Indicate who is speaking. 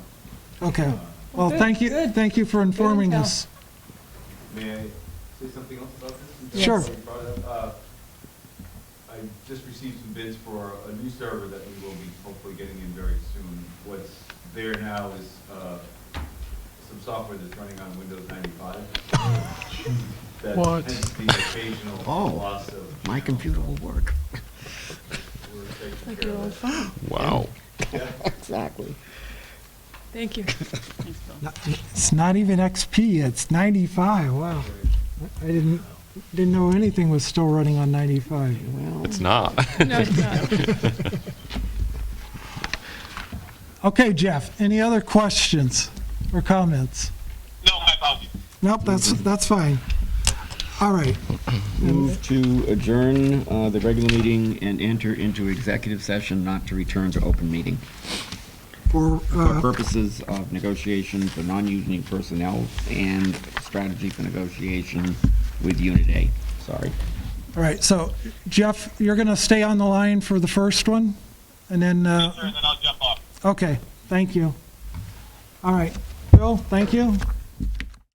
Speaker 1: Uh,
Speaker 2: Okay. Well, thank you, thank you for informing us.
Speaker 1: May I say something else about this?
Speaker 2: Yes. Sure.
Speaker 1: You brought it up. Uh, I just received some bids for a new server that we will be hopefully getting in very soon. What's there now is uh, some software that's running on Windows 95. That
Speaker 2: What?
Speaker 1: hence the occasional
Speaker 3: Oh,
Speaker 1: loss of.
Speaker 3: My computer will work.
Speaker 1: We're taking care of that.
Speaker 4: Wow.
Speaker 3: Exactly.
Speaker 5: Thank you.
Speaker 2: Not- It's not even XP, it's 95, wow. I didn't, didn't know anything was still running on 95.
Speaker 3: Well,
Speaker 4: It's not.
Speaker 5: No, it's not.
Speaker 2: Okay, Jeff, any other questions or comments?
Speaker 6: No, my apologies.
Speaker 2: Nope, that's, that's fine. All right,
Speaker 3: move to adjourn uh, the regular meeting and enter into executive session not to return to open meeting
Speaker 2: for,
Speaker 3: for
Speaker 2: uh,
Speaker 3: purposes of negotiation for non-union personnel and strategy for negotiation with Unit A. Sorry.
Speaker 2: all right, so Jeff, you're going to stay on the line for the first one? And then, uh,
Speaker 6: Sure, and then I'll jump off.
Speaker 2: okay, thank you. All right, Bill, thank you.